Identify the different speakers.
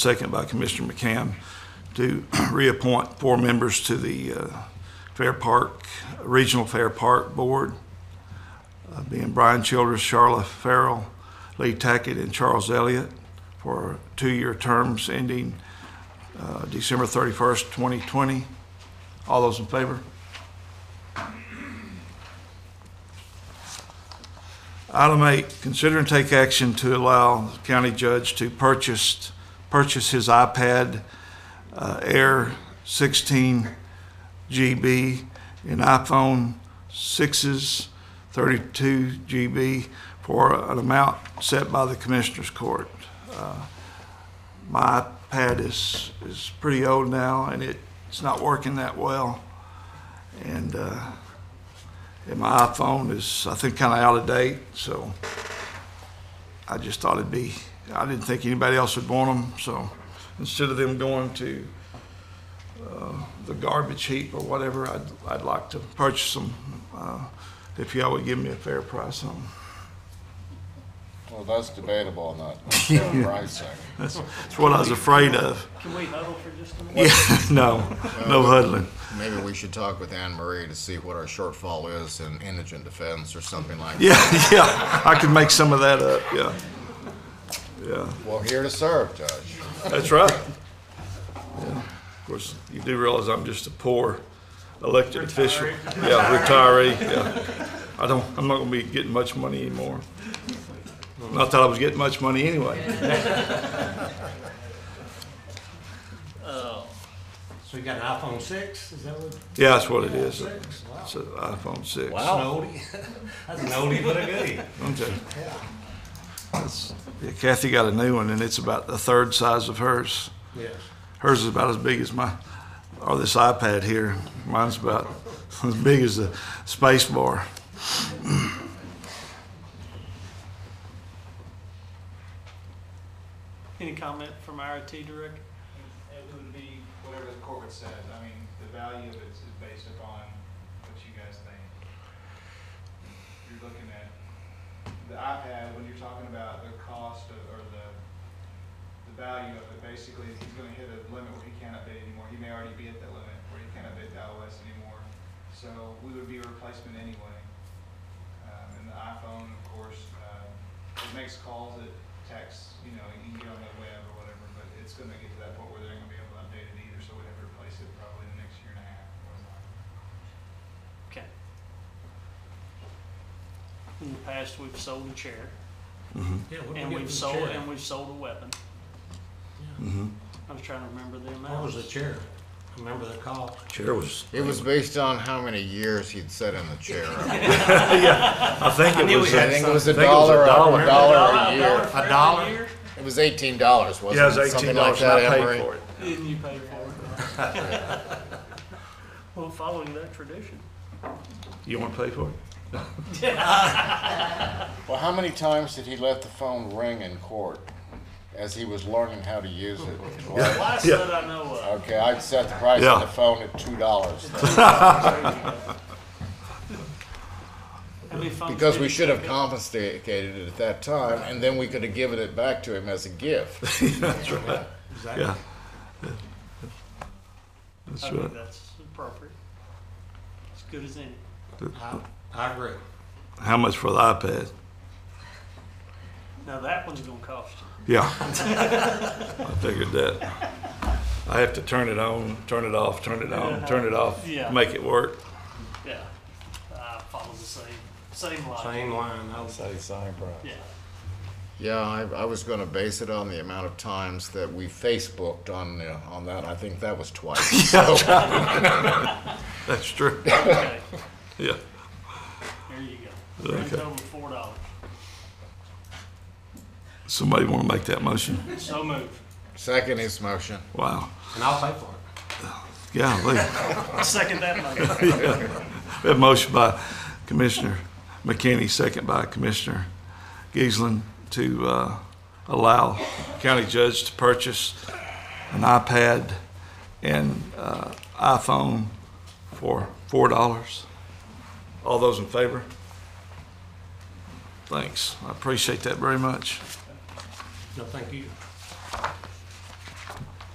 Speaker 1: second by Commissioner McCann, to reappoint four members to the uh, Fair Park, Regional Fair Park Board, uh, being Brian Childress, Charla Farrell, Lee Tackett, and Charles Elliott, for two-year terms ending uh, December 31st, 2020. All those in favor? Item eight, consider and take action to allow the county judge to purchase, purchase his iPad uh, Air 16 GB and iPhone 6s 32 GB for an amount set by the Commissioners Court. Uh, My iPad is, is pretty old now, and it, it's not working that well. And, uh, and my iPhone is, I think, kind of out of date, so I just thought it'd be, I didn't think anybody else would want them, so instead of them going to uh, the garbage heap or whatever, I'd, I'd like to purchase them uh, if y'all would give me a fair price on them.
Speaker 2: Well, that's debatable on that price thing.
Speaker 1: That's, that's what I was afraid of.
Speaker 3: Can we huddle for just a minute?
Speaker 1: Yeah, no, no huddling.
Speaker 2: Maybe we should talk with Anne Marie to see what our shortfall is in indigent defense or something like that.
Speaker 1: Yeah, yeah, I could make some of that up, yeah. Yeah.
Speaker 2: We're here to serve, Judge.
Speaker 1: That's right. Of course, you do realize I'm just a poor elected official. Yeah, retiree, yeah. I don't, I'm not gonna be getting much money anymore. Not that I was getting much money anyway.
Speaker 4: So you got an iPhone six? Is that what?
Speaker 1: Yeah, that's what it is.
Speaker 4: Six? Wow.
Speaker 1: It's an iPhone six.
Speaker 4: Wow. An oldie. That's an oldie but a goodie.
Speaker 1: Okay. That's- yeah, Kathy got a new one and it's about the third size of hers.
Speaker 4: Yes.
Speaker 1: Hers is about as big as my, or this iPad here. Mine's about as big as the space bar.
Speaker 3: Any comment from our IT director?
Speaker 5: It would be whatever the court would said. I mean, the value of it is based upon what you guys think. You're looking at the iPad, when you're talking about the cost of, or the, the value of it, basically, he's gonna hit a limit where he can't update anymore. He may already be at that limit where he can't update the iOS anymore. So we would be a replacement anyway. Um, and the iPhone, of course, uh, it makes calls, it texts, you know, you can get on the web or whatever, but it's gonna get to that point where they're not gonna be able to update it either, so we'd have to replace it probably in the next year and a half. or something.
Speaker 3: Okay. In the past, we've sold a chair,
Speaker 4: Yeah. what did
Speaker 3: and
Speaker 4: we
Speaker 3: we've
Speaker 4: get
Speaker 3: sold,
Speaker 4: for
Speaker 3: and
Speaker 4: the chair?
Speaker 3: we've sold a weapon.
Speaker 1: Mm-hmm.
Speaker 3: I was trying to remember the amount.
Speaker 4: What was the chair? Remember the call?
Speaker 1: Chair was.
Speaker 2: It was based on how many years he'd sat in the chair. I
Speaker 1: I think it was. uh,
Speaker 2: think it was a
Speaker 1: I think it was a
Speaker 2: dollar,
Speaker 1: dollar.
Speaker 2: a dollar a
Speaker 3: dollar
Speaker 2: year.
Speaker 3: for every
Speaker 4: dollar?
Speaker 3: year?
Speaker 2: It was eighteen dollars, wasn't it?
Speaker 1: Yeah, it was eighteen
Speaker 2: Something like
Speaker 1: dollars, and I
Speaker 2: that, Anne
Speaker 1: paid
Speaker 2: Marie?
Speaker 1: for it.
Speaker 3: Didn't you pay for it? Well, following that tradition.
Speaker 1: You want to pay for it?
Speaker 2: Well, how many times did he let the phone ring in court as he was learning how to use it? Like,
Speaker 3: Last that I know of.
Speaker 2: Okay, I'd set the price
Speaker 1: Yeah.
Speaker 2: of the phone at two dollars.
Speaker 3: How many phones
Speaker 2: Because
Speaker 3: did
Speaker 2: we
Speaker 3: he
Speaker 2: should have
Speaker 3: take?
Speaker 2: confiscated it at that time, and then we could have given it back to him as a gift.
Speaker 1: Yeah. That's
Speaker 3: I
Speaker 1: right.
Speaker 3: think that's appropriate. As good as any.
Speaker 4: I, I agree.
Speaker 1: How much for the iPad?
Speaker 3: Now, that one's gonna cost you.
Speaker 1: Yeah. I figured that. I have to turn it on, turn it off, turn it on, turn it off,
Speaker 3: Yeah.
Speaker 1: make it work.
Speaker 3: Yeah. Uh, follows the same, same logic.
Speaker 4: Same line. I was,
Speaker 2: Say sign price.
Speaker 3: Yeah.
Speaker 2: Yeah, I, I was gonna base it on the amount of times that we Facebooked on, the- on that, I think that was twice. So,
Speaker 1: That's true.
Speaker 3: Okay.
Speaker 1: Yeah.
Speaker 3: There you go. Grand
Speaker 1: Okay.
Speaker 3: total of four dollars.
Speaker 1: Somebody want to make that motion?
Speaker 3: So moved.
Speaker 2: second his motion.
Speaker 1: Wow.
Speaker 4: and I'll pay for it.
Speaker 1: Golly.
Speaker 3: I Second that motion.
Speaker 1: We have a motion by Commissioner McKinney, second by Commissioner Giesland, to uh, allow county judge to purchase an iPad and uh, iPhone for four dollars. All those in favor? Thanks. I appreciate that very much.
Speaker 4: No, thank you.